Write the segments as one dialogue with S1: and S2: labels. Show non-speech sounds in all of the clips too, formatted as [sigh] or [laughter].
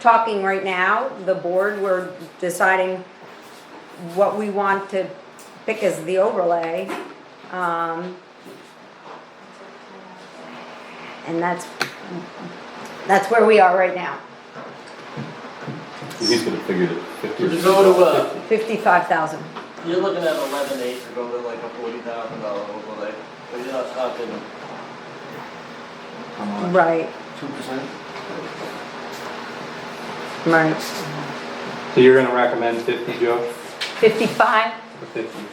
S1: talking right now, the board, we're deciding what we want to pick as the overlay. Um, and that's, that's where we are right now,
S2: He's gonna figure it fifty.
S3: If you go to, uh,
S1: fifty-five thousand.
S3: you're looking at eleven eight to go to like a forty thousand dollar overlay, but you're not talking
S1: Right,
S3: two percent?
S1: right.
S4: So you're gonna recommend fifty, Joe,
S1: Fifty-five?
S4: or fifty?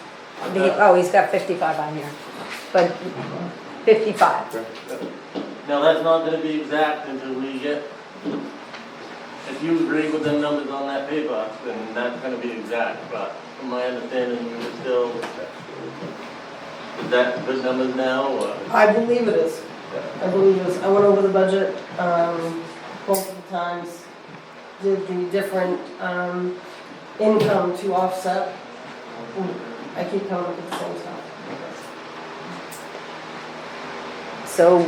S4: Uh.
S1: Oh, he's got fifty-five on here, but fifty-five.
S3: Now, that's not gonna be exact until we get, if you agree with the numbers on that paper, then that's gonna be exact, but from my understanding, you were still, is that good numbers now, or?
S5: I believe it is. I believe it is. I went over the budget, um, multiple times, did the different, um, income to offset. Mm, I keep coming up with the same stuff.
S1: So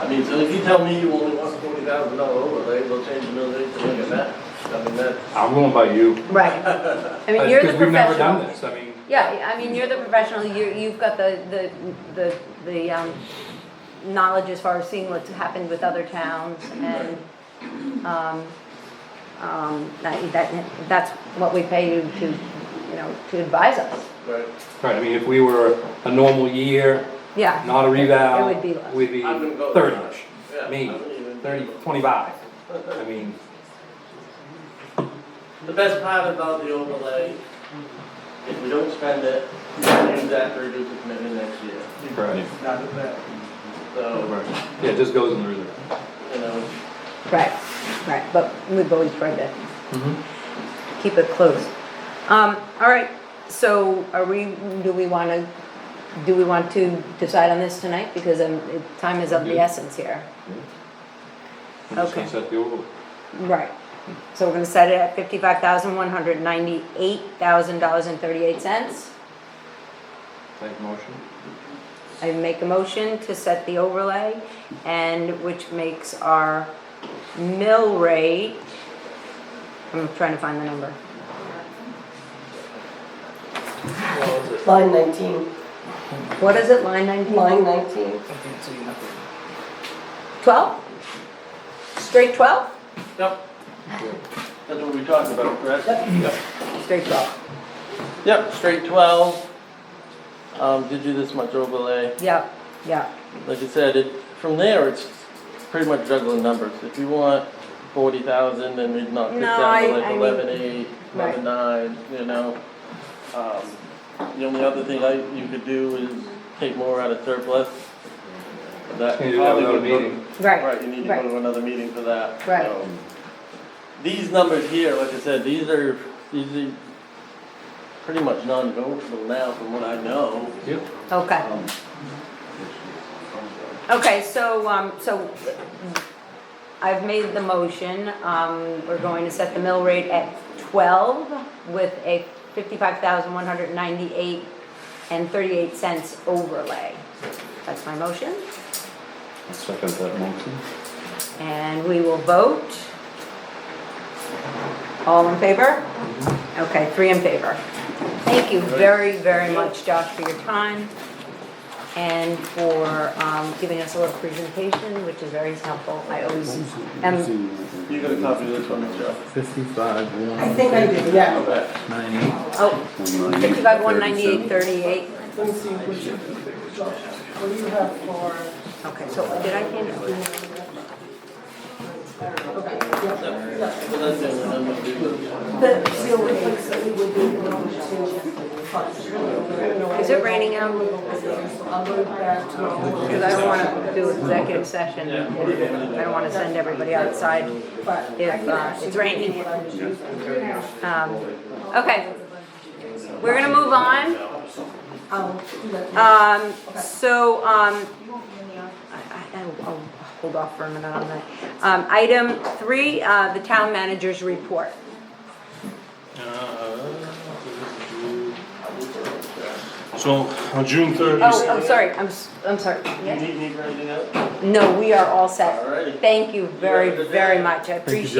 S3: I mean, so if you tell me you only want forty thousand dollar overlay, we'll change the mill rate to look at that, I mean, that,
S4: I'm going by you. [laughs]
S1: Right. I mean, you're the
S4: Because we've never done
S1: professional.
S4: this, I mean,
S1: Yeah, I mean, you're the professional, you, you've got the, the, the, the, um, knowledge as far as seeing what's happened with other towns and, um, um, that, that, that's what we pay you to, you know, to advise us.
S3: right?
S4: right, I mean, if we were a normal year,
S1: Yeah,
S4: not a
S1: It
S4: revow,
S1: would be less.
S4: we'd be
S3: I wouldn't go that
S4: thirty-ish,
S3: Yeah, I
S4: Me,
S3: wouldn't even-
S4: thirty, twenty-five, I mean,
S3: The best part about the overlay, if we don't spend it, we can use that to reduce the commitment next year.
S4: right,
S3: So,
S4: yeah, it just goes in the reserve.
S3: you know,
S1: right, right, but we've always tried to
S4: Mhm.
S1: Mm-hmm. keep it close. Um, all right, so are we, do we wanna, do we want to decide on this tonight? Because, um, it- time is of the
S4: Yeah.
S1: essence here.
S4: I'm just gonna
S1: Okay.
S4: set the overlay.
S1: Right, so we're gonna set it at fifty-five thousand, one hundred ninety-eight thousand dollars and thirty-eight cents.
S4: Make a
S3: [laughs]
S4: motion.
S1: I make a motion to set the overlay, and which makes our mill rate, I'm trying to find the number,
S3: what was it?
S5: Line nineteen,
S1: what is it, line ninety?
S5: line nineteen.
S1: Twelve? Straight twelve?
S3: Yep. That's what we talked about, correct?
S1: Straight twelve,
S3: Yep, straight twelve. Um, did you this much overlay?
S1: yep, yep,
S3: Like I said, it, from there, it's pretty much juggling numbers. If you want forty thousand, then we'd knock this
S1: No,
S3: down
S1: I-
S3: to like
S1: I mean-
S3: eleven eight,
S1: Right.
S3: eleven nine, you know? Um, The only other thing I, you could do is take more out of surplus. That
S4: Can you do that
S3: probably
S4: without a
S3: would look-
S4: meeting?
S1: right,
S3: Right, you need to
S1: right.
S3: go to another meeting for that.
S1: Right.
S3: so. These numbers here, like I said, these are, these are pretty much non-negotiable now from what I know. Um,
S4: Yep.
S1: okay. Okay, so, um, so I've made the motion, um, we're going to set the mill rate at twelve with a fifty-five thousand one hundred ninety-eight and thirty-eight cents overlay. That's my motion,
S2: I'll Second that motion.
S1: and we will vote. All in favor? Okay, three in favor. Thank you very, very much, Josh, for your time and for, um, giving us a little presentation, which is very helpful. I always am
S3: You're gonna copy this one, Michelle?
S2: Fifty-five,
S5: I think I did, yeah.
S3: Okay.
S1: Oh, fifty-five, one ninety-eight, thirty-eight.
S5: Let me see, what you, Josh, what do you have for?
S1: Okay, so did I hand it?
S5: Okay, yeah, yeah.
S3: So that's it, and then we'll do-
S5: The seal rates that we would be able to fund.
S1: Is it raining out?
S5: I'll go back to,
S1: Because I don't want to do executive session. I don't want to send everybody outside.
S5: but
S1: If, uh, it's raining.
S5: what I'm choosing.
S1: Um, Okay. We're going to move on.
S5: I'll do that.
S1: Um, so, um, I, I, I'll hold off for a minute on that. Um, item three, uh, the town manager's report.
S6: So on June
S1: Oh,
S6: thirtieth,
S1: I'm sorry, I'm, s- I'm sorry.
S3: You need me for anything else?
S1: No, we are all set.
S3: Alrighty.
S1: Thank you
S3: have a
S1: very,
S3: good
S1: very
S3: day.
S1: much, I appreciate